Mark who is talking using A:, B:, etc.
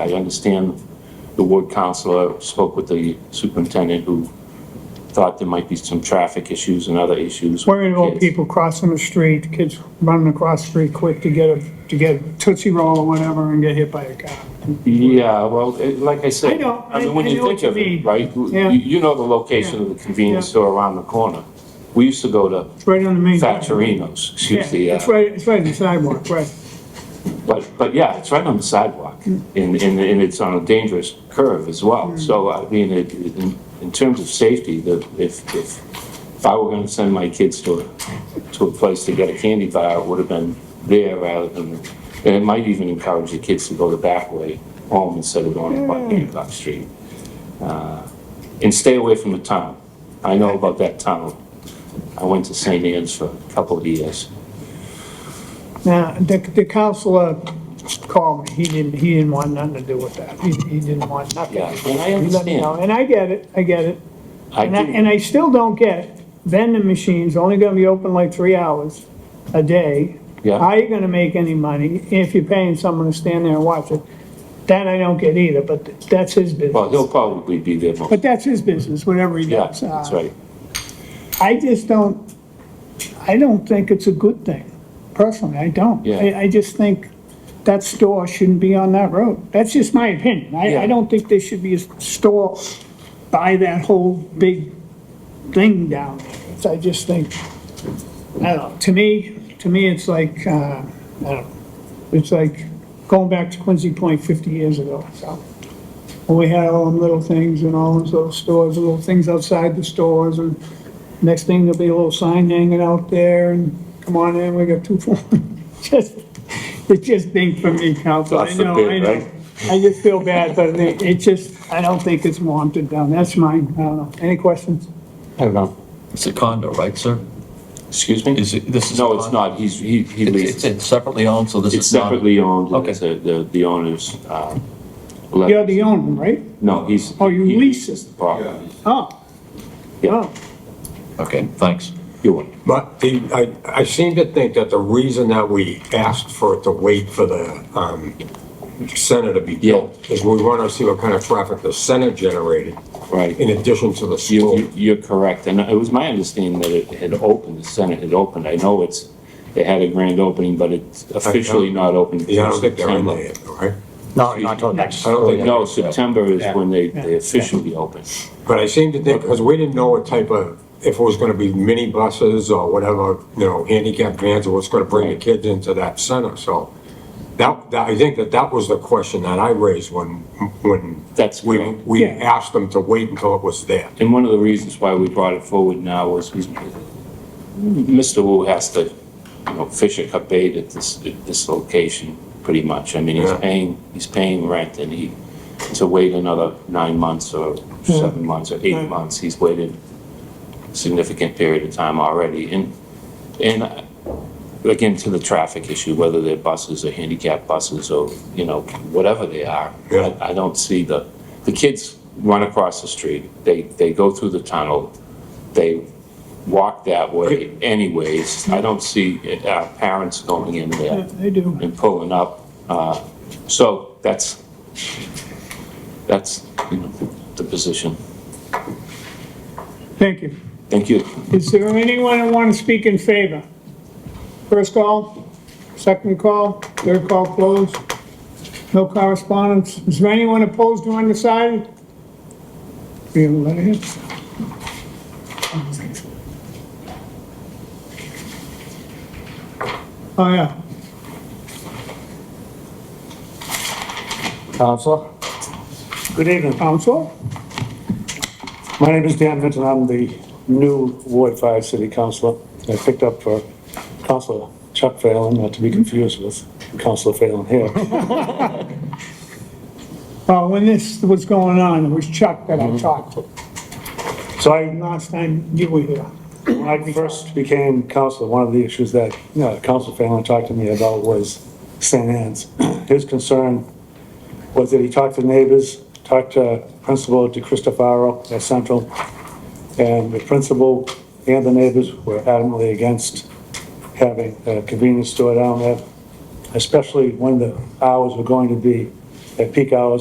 A: I understand the ward counselor spoke with the superintendent who thought there might be some traffic issues and other issues. with
B: Worried about
A: kids.
B: people crossing the street, kids running across the street quick to get a, to get a Tootsie Roll or whatever and get hit by a car.
A: Yeah, well, it- like I said.
B: I know.
A: mean,
B: I-
A: when
B: I
A: you
B: know
A: think
B: what
A: of
B: you
A: it,
B: mean.
A: right? You,
B: Yeah.
A: you know the location of the convenience
B: Yeah.
A: store around the corner. We used to go to
B: It's right on the main.
A: Factorino's,
B: Yeah,
A: excuse the,
B: it's
A: uh,
B: right, it's right on the sidewalk, right.
A: but, but yeah, it's right on the sidewalk.
B: Mm.
A: And, and, and it's on a dangerous curve as well. So, I mean, it, it- in, in terms of safety, the, if, if, if I were gonna send my kids to a, to a place to get a candy bar, it would have been there rather than, and it might even encourage the kids to go the back way home instead of going to
B: Mm.
A: Buckingham Street. Uh, And stay away from the town. I know about that town. I went to St. Anne's for a couple of years.
B: Now, the, the counselor called me, he didn't, he didn't want nothing to do with that, he, he didn't want nothing.
A: Yeah, and I
B: He let me know,
A: understand.
B: And I get it, I get it,
A: I
B: and I,
A: do,
B: and I still don't get, vending machines only gonna be open like three hours a day.
A: Yeah.
B: How you gonna make any money if you're paying someone to stand there and watch it? That I don't get either, but that's his
A: well,
B: business,
A: he'll probably be there more.
B: but that's his business, whatever he
A: Yeah,
B: does.
A: that's
B: Uh,
A: right.
B: I just don't, I don't think it's a good thing, personally, I don't.
A: Yeah.
B: I, I just think that store shouldn't be on that road. That's just my opinion. I,
A: Yeah.
B: I don't think there should be a store by that whole big thing down there. It's- I just think, I don't know, to me, to me, it's like, uh, I don't know, it's like going back to Quincy Point fifty years ago, so. When we had all them little things and all those little stores, little things outside the stores and Next thing, there'll be a little sign hanging out there, and come on in, we got two phones. Just, it just dinged for me, council,
A: God
B: I know, I
A: forbid, right?
B: know. I just feel bad, but it, it just, I don't think it's warranted down, that's mine, I don't know. Any questions?
A: I don't know.
C: It's a condo, right, sir?
A: Excuse me?
C: Is it, this is? a
A: No, it's
C: condo?
A: not. He's, he, he
C: It's
A: leases.
C: it's- it's separately owned, so this
A: It's
C: is not.
A: separately owned.
C: Okay.
A: It's, uh, The, the owner's, uh,
B: You're
A: let-
B: the owner, right?
A: no, he's.
B: Oh, you
A: he
B: lease
A: leases the property.
B: Oh.
A: Yeah.
B: Oh,
C: Okay, thanks.
A: You're welcome.
D: But the, I, I seem to think that the reason that we asked for it to wait for the, um, center to be built is we want to see what kind of traffic the center generated
A: Right.
D: in addition to the
A: You-
D: school.
A: you- You're correct, and it was my understanding that it had opened, the Senate had opened. I know it's, it had a grand opening, but it's officially not open.
D: Yeah, I don't think they're in
A: September.
D: there Oh, yet, all right?
E: No, not till next.
D: I don't think-
A: No, September is when they, they officially open.
D: But I seem to think, because we didn't know what type of, if it was going to be mini buses or whatever, you know, handicapped vans or what's going to bring the kids into that center, so. That, that, I think that that was the question that I raised when, when.
A: That's
D: We,
A: correct.
D: we
B: Yeah.
D: asked them to wait until it was there.
A: And one of the reasons why we brought it forward now was we- Mr. Wu has to, you know, fish a cup bait at this, at this location, pretty much. I mean, he's
D: Yeah.
A: paying, he's paying rent and he, to wait another nine months or seven months or eight months, he's waited a significant period of time already. And, and uh, again, to the traffic issue, whether they're buses or handicap buses or, you know, whatever they are.
D: Yeah.
A: I I don't see the, the kids run across the street, they, they go through the tunnel, they walk that way anyways. I don't see our parents going in
B: yeah,
A: there
B: I do.
A: and pulling up. Uh, So that's, that's, you know, the position.
B: Thank you.
A: Thank you.
B: Is there anyone who want to speak in favor? First call, second call, third call closed. No correspondence. Is there anyone opposed or undecided? We have a letterhead. Oh, yeah.
E: Counselor? Good evening.
B: Council?
E: My name is Dan Vinton. I'm the new Ward 5 City Councilor. I picked up for Councilor Chuck Phelan, not to be confused with Councilor Phelan here.
B: Well, Oh, when this was going on, it was Chuck that I talked to.
E: So I
B: Last time you were here.
E: When I first became council, one of the issues that, you know, Council Phelan talked to me about was St. Anne's. His concern was that he talked to neighbors, talked to Principal DeCristofaro at Central, and the principal and the neighbors were adamantly against having a convenience store down there, especially when the hours were going to be at peak hours